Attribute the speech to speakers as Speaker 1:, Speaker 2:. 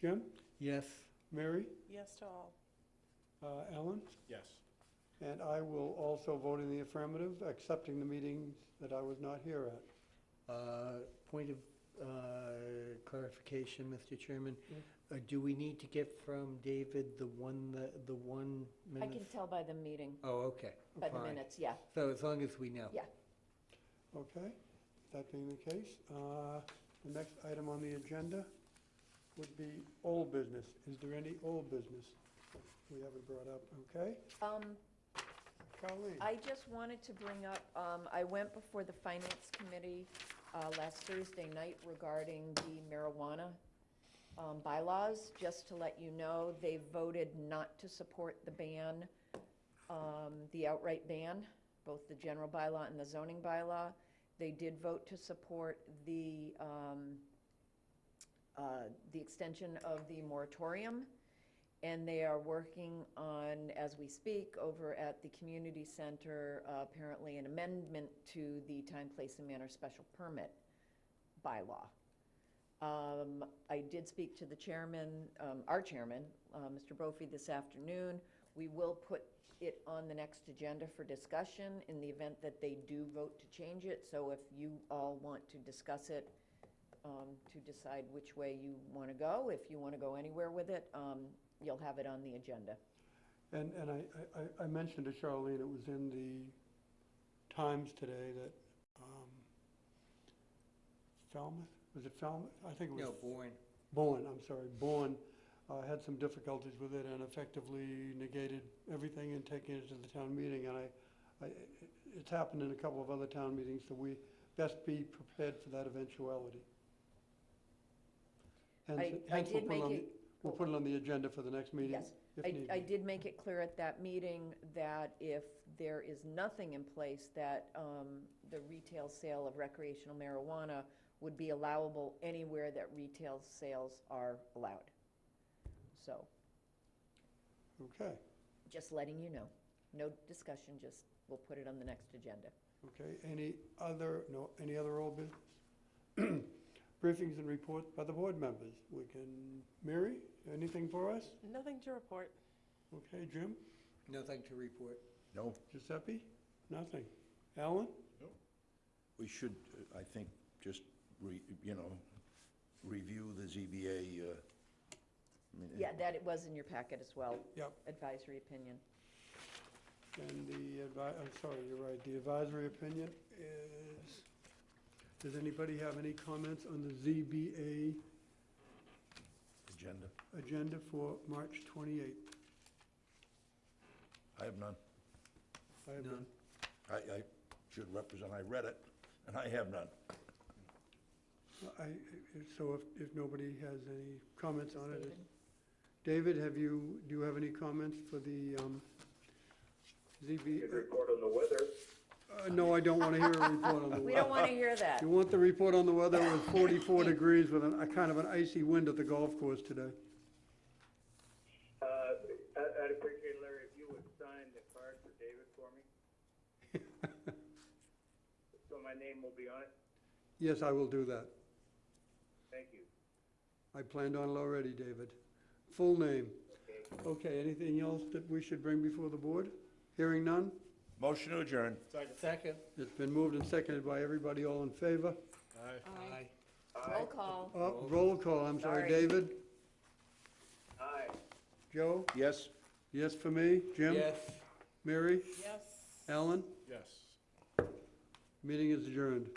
Speaker 1: Jim,
Speaker 2: Yes.
Speaker 1: Mary,
Speaker 3: Yes to all.
Speaker 1: uh, Ellen,
Speaker 4: Yes.
Speaker 1: and I will also vote in the affirmative, accepting the meetings that I was not here at.
Speaker 2: Uh, Point of uh, clarification, Mr. Chairman.
Speaker 1: Yes.
Speaker 2: Uh, Do we need to get from David the one, that- the one
Speaker 5: I
Speaker 2: minute?
Speaker 5: can tell by the meeting,
Speaker 2: Oh, okay.
Speaker 5: by the
Speaker 2: Fine.
Speaker 5: minutes, yeah.
Speaker 2: So as long as we know.
Speaker 5: Yeah.
Speaker 1: Okay, that being the case, uh, the next item on the agenda would be old business. Is there any old business we haven't brought up? Okay,
Speaker 5: Um,
Speaker 1: Colleen?
Speaker 5: I just wanted to bring up, um, I went before the finance committee, uh, last Thursday night regarding the marijuana, um, bylaws. Just to let you know, they voted not to support the ban, um, the outright ban, both the general bylaw and the zoning bylaw. They did vote to support the, um, uh, the extension of the moratorium. And they are working on, as we speak, over at the community center, uh, apparently an amendment to the time, place, and manner special permit bylaw. Um, I did speak to the chairman, um, our chairman, uh, Mr. Brophy, this afternoon. We will put it on the next agenda for discussion in the event that they do vote to change it. So if you all want to discuss it, um, to decide which way you want to go. If you want to go anywhere with it, um, you'll have it on the agenda.
Speaker 1: And, and I, I- I, I mentioned to Charlene, it was in the Times today that, um, Falmouth, was it Falmouth? I think it was.
Speaker 2: No, born.
Speaker 1: Bowen, I'm sorry, Bowen, uh, had some difficulties with it and effectively negated everything and taking it to the town meeting. And I, I, it's happened in a couple of other town meetings, so we best be prepared for that eventuality. Hence-
Speaker 5: I- I
Speaker 1: hence we'll put
Speaker 5: did
Speaker 1: it
Speaker 5: make
Speaker 1: on the-
Speaker 5: it-
Speaker 1: We'll put it on the agenda for the next meeting,
Speaker 5: Yes.
Speaker 1: if
Speaker 5: I,
Speaker 1: need
Speaker 5: I
Speaker 1: be.
Speaker 5: did make it clear at that meeting that if there is nothing in place, that um, the retail sale of recreational marijuana would be allowable anywhere that retail sales are allowed. So,
Speaker 1: Okay,
Speaker 5: just letting you know. No discussion, just, we'll put it on the next agenda.
Speaker 1: okay. Any other, no, any other old business? Briefings and reports by the board members. We can, Mary, anything for us?
Speaker 3: Nothing to report.
Speaker 1: Okay, Jim?
Speaker 2: Nothing to report.
Speaker 4: No,
Speaker 1: Giuseppe? Nothing. Alan?
Speaker 4: we should, uh, I think, just, re- you know, review the ZBA. uh, I mean,
Speaker 5: Yeah, that it was in your packet as well,
Speaker 1: Yep.
Speaker 5: advisory opinion.
Speaker 1: And the advi, I'm sorry, you're right, the advisory opinion is, does anybody have any comments on the ZBA
Speaker 4: Agenda.
Speaker 1: agenda for March 28th?
Speaker 4: I have none.
Speaker 1: I have
Speaker 2: None.
Speaker 4: I, I should represent, I read it, and I have none.
Speaker 1: I, I- so if, if nobody has any comments on it. it's- David, have you, do you have any comments for the um,
Speaker 6: Good
Speaker 1: ZB?
Speaker 6: report on the weather.
Speaker 1: uh, No, I don't want to hear a report on the
Speaker 5: We
Speaker 1: weather.
Speaker 5: don't want to hear that.
Speaker 1: You want the report on the weather with 44 degrees with an- a kind of an icy wind at the golf course today?
Speaker 6: Uh, I- I'd appreciate, Larry, if you would sign the card for David for me. So my name will be on it.
Speaker 1: Yes, I will do that.
Speaker 6: Thank you.
Speaker 1: I planned on it already, David. Full name.
Speaker 6: Okay.
Speaker 1: Okay, anything else that we should bring before the board? Hearing none?
Speaker 4: Motion to adjourn.
Speaker 2: Second.
Speaker 1: It's been moved and seconded by everybody, all in favor?
Speaker 2: Aye.
Speaker 5: Roll call.
Speaker 1: Oh, Roll call, I'm sorry,
Speaker 5: Sorry.
Speaker 1: David?
Speaker 6: Aye.
Speaker 1: Joe?
Speaker 4: Yes?
Speaker 1: Yes for me? Jim?
Speaker 2: Yes.
Speaker 1: Mary?
Speaker 3: Yes.
Speaker 1: Alan?
Speaker 4: Yes.
Speaker 1: Meeting is adjourned.